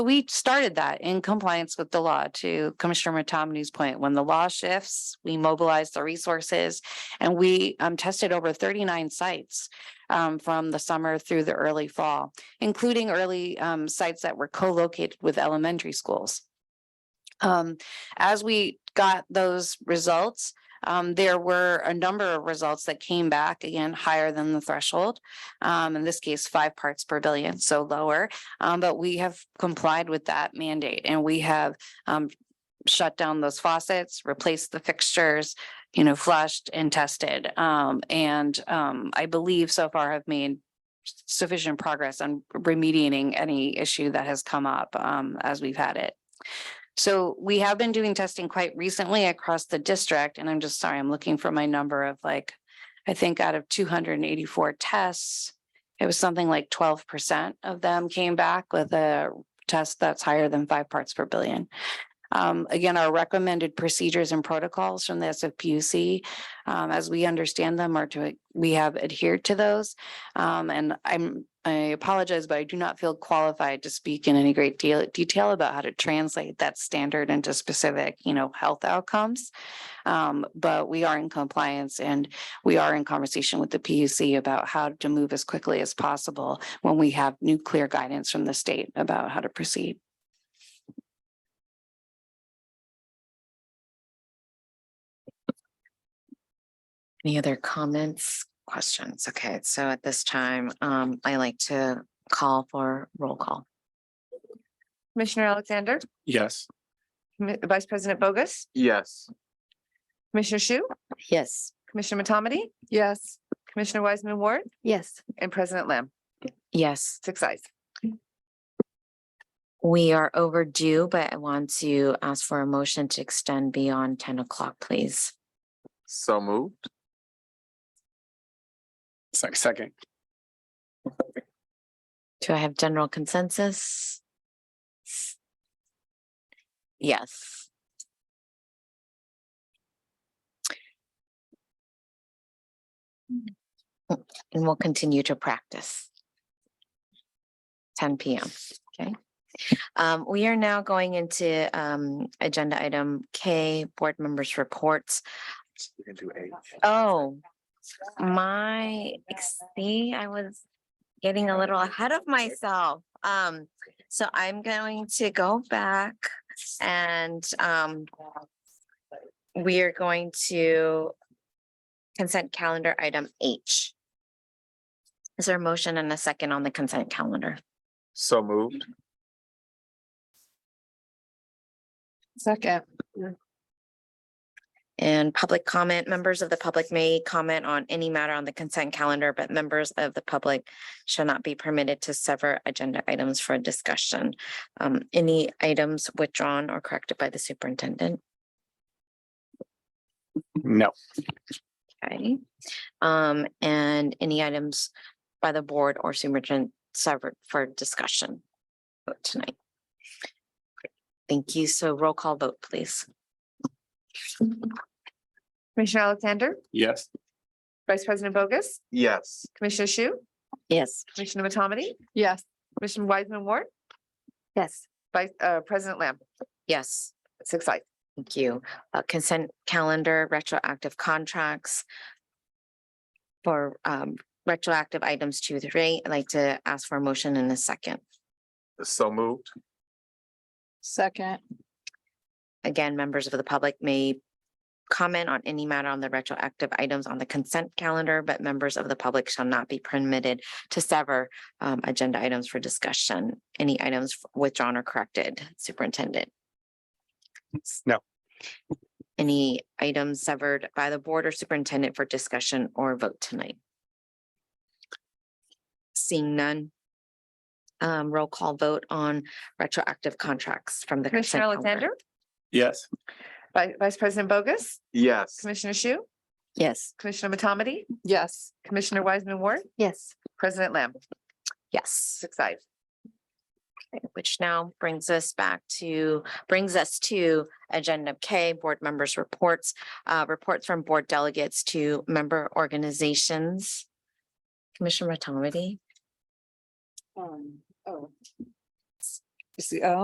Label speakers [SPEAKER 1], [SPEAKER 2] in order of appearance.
[SPEAKER 1] we started that in compliance with the law to Commissioner Matomany's point. When the law shifts, we mobilize the resources and we um tested over thirty-nine sites um from the summer through the early fall, including early um sites that were co-located with elementary schools. Um, as we got those results, um, there were a number of results that came back again higher than the threshold. Um, in this case, five parts per billion, so lower. Um, but we have complied with that mandate and we have um shut down those faucets, replaced the fixtures, you know, flushed and tested. Um, and um, I believe so far have made sufficient progress on remediating any issue that has come up um as we've had it. So we have been doing testing quite recently across the district, and I'm just sorry, I'm looking for my number of like, I think out of two hundred and eighty-four tests, it was something like twelve percent of them came back with a test that's higher than five parts per billion. Um, again, our recommended procedures and protocols from the SFPUC, um, as we understand them are to, we have adhered to those. Um, and I'm, I apologize, but I do not feel qualified to speak in any great deal, detail about how to translate that standard into specific, you know, health outcomes. Um, but we are in compliance and we are in conversation with the PUC about how to move as quickly as possible when we have new clear guidance from the state about how to proceed.
[SPEAKER 2] Any other comments, questions? Okay, so at this time, um, I like to call for roll call.
[SPEAKER 3] Commissioner Alexander,
[SPEAKER 4] Yes.
[SPEAKER 3] Commi- Vice President Bogus,
[SPEAKER 4] Yes.
[SPEAKER 3] Commissioner Shu,
[SPEAKER 2] Yes.
[SPEAKER 3] Commissioner Matomedy. Yes. Commissioner Wiseman Ward
[SPEAKER 2] Yes.
[SPEAKER 3] and President Lamb,
[SPEAKER 2] Yes,
[SPEAKER 3] six eyes.
[SPEAKER 2] we are overdue, but I want to ask for a motion to extend beyond ten o'clock, please.
[SPEAKER 4] So moved. Second.
[SPEAKER 2] Do I have general consensus? Yes. Mm, And we'll continue to practice. Ten PM, okay? Um, we are now going into um agenda item K, board members' reports. Oh, my, see, I was getting a little ahead of myself. Um, so I'm going to go back and, um, we are going to consent calendar item H. Is there a motion and a second on the consent calendar?
[SPEAKER 4] So moved.
[SPEAKER 3] Second.
[SPEAKER 2] And public comment, members of the public may comment on any matter on the consent calendar, but members of the public shall not be permitted to sever agenda items for discussion. Um, any items withdrawn or corrected by the superintendent?
[SPEAKER 4] No.
[SPEAKER 2] Okay, um, and any items by the board or superintendent severed for discussion vote tonight? Thank you. So roll call vote, please.
[SPEAKER 3] Commissioner Alexander,
[SPEAKER 4] Yes.
[SPEAKER 3] Vice President Bogus,
[SPEAKER 4] Yes.
[SPEAKER 3] Commissioner Shu,
[SPEAKER 2] Yes.
[SPEAKER 3] Commissioner Matomedy. Yes. Commissioner Wiseman Ward,
[SPEAKER 2] Yes.
[SPEAKER 3] Vice, uh, President Lamb,
[SPEAKER 2] Yes,
[SPEAKER 3] six eyes.
[SPEAKER 2] thank you. Uh, consent calendar, retroactive contracts for, um, retroactive items two, three. I'd like to ask for a motion in a second.
[SPEAKER 4] So moved.
[SPEAKER 3] Second.
[SPEAKER 2] Again, members of the public may comment on any matter on the retroactive items on the consent calendar, but members of the public shall not be permitted to sever um, agenda items for discussion. Any items withdrawn or corrected, superintendent?
[SPEAKER 4] No.
[SPEAKER 2] Any items severed by the board or superintendent for discussion or vote tonight? Seeing none. Um, roll call vote on retroactive contracts from the.
[SPEAKER 3] Commissioner
[SPEAKER 2] consent calendar.
[SPEAKER 3] Alexander,
[SPEAKER 4] Yes.
[SPEAKER 3] Vi- Vice President Bogus,
[SPEAKER 4] Yes.
[SPEAKER 3] Commissioner Shu,
[SPEAKER 2] Yes.
[SPEAKER 3] Commissioner Matomedy. Yes. Commissioner Wiseman Ward,
[SPEAKER 2] Yes.
[SPEAKER 3] President Lamb,
[SPEAKER 2] Yes,
[SPEAKER 3] six eyes.
[SPEAKER 2] Okay, which now brings us back to, brings us to Agenda K, Board Members' Reports, uh, reports from board delegates to member organizations.
[SPEAKER 3] Um, oh.
[SPEAKER 2] Commissioner Matomedy,
[SPEAKER 3] uh,
[SPEAKER 1] Obviously, oh,